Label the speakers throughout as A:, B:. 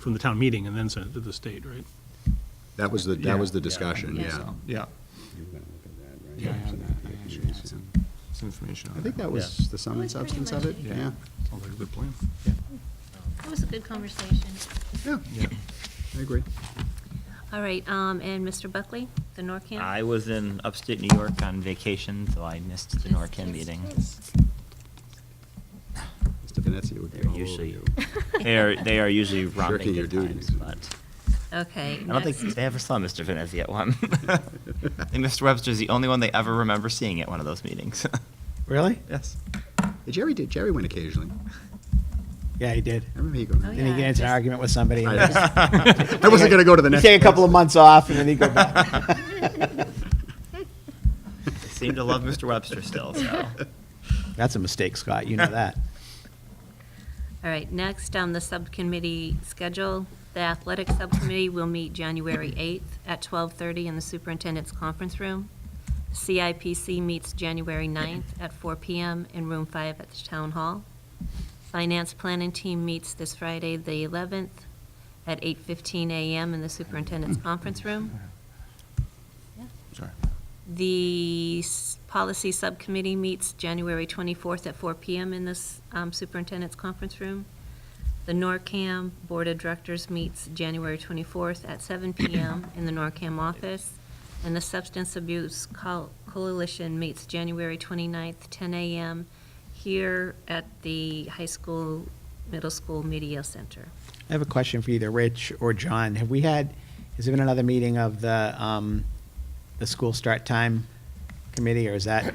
A: from the town meeting and then send it to the state, right?
B: That was the,
C: Yeah,
B: that was the
C: yeah,
B: discussion,
D: yeah.
B: yeah.
A: Oh,
C: So, Yeah,
D: Yeah, I have that. I actually have some-
A: Some information on
B: I
A: that.
B: think that was the sum and
D: That was pretty
B: substance of
D: much
B: it,
D: it.
B: yeah.
A: Sounds like a good plan.
D: It was a good conversation.
B: Yeah,
A: Yeah.
B: I agree.
D: All right, um, and Mr. Buckley, the NORCAN?
E: I was in upstate New York on vacation, so I missed the NORCAN meeting.
B: Mr. Venezia would be
E: They're
B: all over
E: usually-
B: you.
E: They are, they are usually romping
B: your
E: good times,
B: duties.
E: but
D: Okay.
E: I don't think
D: next.
E: they ever saw Mr. Venezia at one. I think Mr. Webster's the only one they ever remember seeing at one of those meetings.
F: Really?
E: Yes.
B: Hey, Jerry did, Jerry went occasionally.
F: Yeah, he did.
B: I remember he going.
D: Oh,
F: Then he
D: Yeah,
F: get into an
D: just-
F: argument with somebody. and
B: I-
F: just-
B: I wasn't gonna go to the
F: he'd
B: next.
F: Take a couple of
B: place.
F: months off and then he'd go back.
E: Seem to love Mr. Webster still, so.
F: That's a mistake, Scott, you know that.
D: All right, next on the subcommittee schedule, the athletic subcommittee will meet January 8th at 12:30 in the superintendent's conference room. CIPC meets January 9th at 4 PM in room 5 at the town hall. Finance planning team meets this Friday, the 11th, at 8:15 AM in the superintendent's conference room.
F: Sorry.
D: The s- policy subcommittee meets January 24th at 4 PM in this um, superintendent's conference room. The NORCAM Board of Directors meets January 24th at 7 PM in the NORCAM office. And the Substance Abuse Col- Coalition meets January 29th, 10 AM here at the high school, middle school media center.
F: I have a question for either Rich or John. Have we had, has there been another meeting of the, um, the school start time committee, or is that,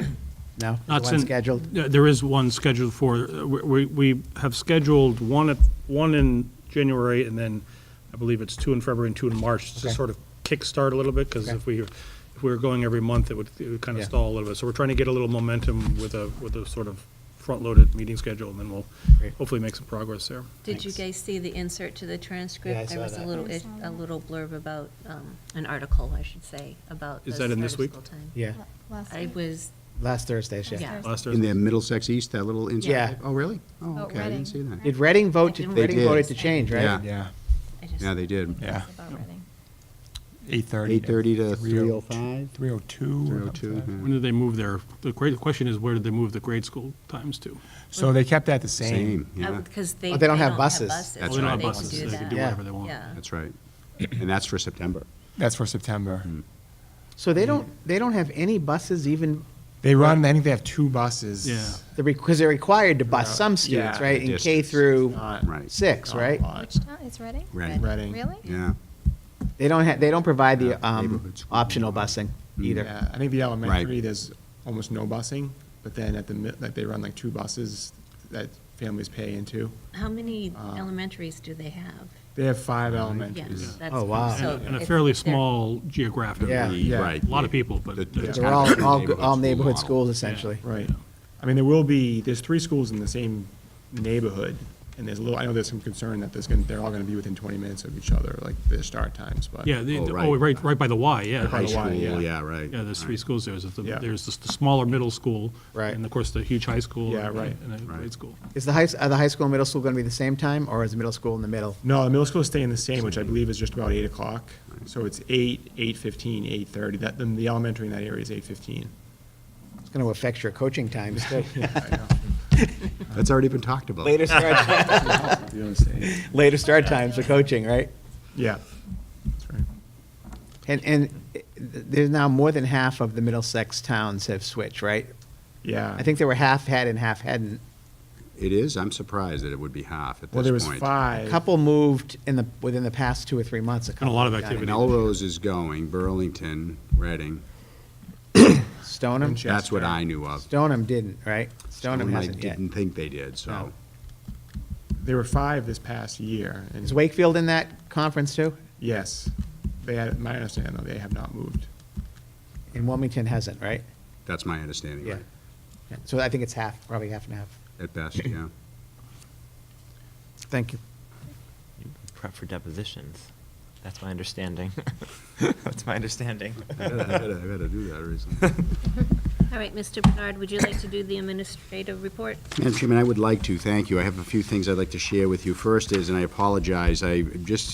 F: no?
A: Not
F: The one
A: sin-
F: scheduled?
A: Yeah, There is one scheduled for, uh, we, we we have scheduled one, at- one in January, and then I believe it's two in February and two in March, to
F: Okay.
A: sort of kickstart a little bit, because
F: Okay.
A: if we, if we were going every month, it would, it would kind of
F: Yeah.
A: stall a little bit. So we're trying to get a little momentum with a, with a sort of front-loaded meeting schedule, and then we'll
F: Great.
A: hopefully make some progress there.
D: Did you
F: Thanks.
D: guys see the insert to the transcript?
F: Yeah, I saw
D: There was a
F: that.
D: little,
G: I
D: it-
G: saw
D: a
G: that.
D: little blurb about, um, an article, I should say, about.
A: Is that
D: the
A: in
D: start
A: this
D: of
A: week?
D: school time.
F: Yeah,
G: Last
D: I
G: week.
D: was,
F: last Thursday, yeah.
D: Yeah.
A: Last
B: In
A: Thursday.
B: the Middlesex East, that little insert?
F: Yeah.
B: Oh, really?
G: Oh,
B: Oh, okay, I
G: Reading.
B: didn't see that.
F: Did Reading vote,
D: They
F: to
D: did.
F: Reading voted to change,
B: Yeah.
F: right?
C: yeah,
D: I just.
B: Yeah, they did.
C: yeah.
G: About Reading.
C: 8:30.
B: 8:30 to 3:05?
C: 3:02.
B: 3:02, yeah.
A: When did they move their, the great, question is, where did they move the grade school times to?
C: So they kept that the same.
B: Same, yeah,
D: Because they.
F: Oh, they don't have buses.
B: That's
A: Well, they don't
B: right.
A: have
D: They can
A: buses,
D: do
A: so they can
D: that.
A: do
F: Yeah.
A: whatever they want.
D: Yeah.
B: that's right. And that's for September.
C: That's for September.
F: So
B: Mm-hmm.
F: they don't, they don't have any buses even,
C: They run, I think they have two buses.
A: Yeah.
F: because they're required to bus some students,
C: Yeah.
F: right? In K
B: Distance.
F: through
C: Not-
B: Right.
F: six,
C: not a
F: right?
C: lot.
G: Which town, it's Reading?
B: Reading.
C: Reading.
G: Really?
B: Yeah,
F: They don't have, they don't provide
B: Yeah,
F: the um,
B: neighborhood school.
F: optional busing either.
C: Yeah, I think the elementary,
B: Right.
C: there's almost no busing, but then at the, mi- like, they run like two buses that families pay into.
D: How many
C: Uh,
D: elementaries do they have?
C: They have five
D: Yeah,
C: elementaries.
D: that's.
F: Oh, wow.
D: so
A: And and a
D: if
A: fairly
D: they're-
A: small geographic.
F: Yeah.
C: Yeah.
B: right.
A: A lot of people, but.
B: The- the-
C: Yeah.
F: They're all, all, g- all
B: Neighborhood
F: neighborhood
B: school
F: schools
B: model.
F: essentially.
C: Right. I mean, there will be, there's three schools in the same neighborhood, and there's a little, I know there's some concern that there's gonna, they're all gonna be within twenty minutes of each other, like their start times, but.
A: Yeah, the-
B: Oh,
A: the-
B: right.
A: oh, right, right by the Y, yeah.
C: by
B: High
C: the Y,
B: school,
C: yeah.
B: yeah, right.
A: Yeah, there's three
B: right.
A: schools, there's, the-
C: Yeah.
A: there's this- the smaller middle school.
F: Right.
A: And of course, the huge high school.
C: Yeah,
A: and-
C: right.
A: And a
B: Right.
A: grade school.
F: Is the high, s- are the high school and middle school going to be the same time, or is the middle school in the middle?
C: No, the middle school is staying the same, which I believe is just about eight o'clock, so it's eight, eight fifteen, eight thirty, that, then the elementary in that area is eight fifteen.
F: It's going to affect your coaching times, too.
B: That's already been talked about.
F: Later start, later start times for coaching, right?
C: Yeah, that's right.
F: And, and i- there's now more than half of the Middlesex towns have switched, right?
C: Yeah.
F: I think there were half had and half hadn't.
B: It is, I'm surprised that it would be half at this point.
C: Well, there was
F: A
C: five.
F: couple moved in the, within the past two or three months.
A: a lot of
F: couple have done it.
A: activity.
B: Melrose is going, Burlington, Reading,
F: Stoneham,
C: Winchester.
B: that's what I knew of.
F: Stoneham didn't, right? Stoneham
B: Stone, I
F: hasn't yet.
B: Didn't think they did, so.
F: No.
C: There were five this past year. and-
F: Is Wakefield in that conference too?
C: Yes. They had, my understanding, though, they have not moved.
F: And Wilmington hasn't, right?
B: That's my understanding, right?
F: Yeah. So I think it's half, probably half and half.
B: At best, yeah.
F: Thank you.
E: Prep for depositions. That's my understanding. That's my understanding.
B: I gotta I gotta- I gotta do that recently.
D: All right, Mr. Bernard, would you like to do the administrative report?
B: Madam Chairman, I would like to, thank you. I have a few things I'd like to share with you. First is, and I apologize, I just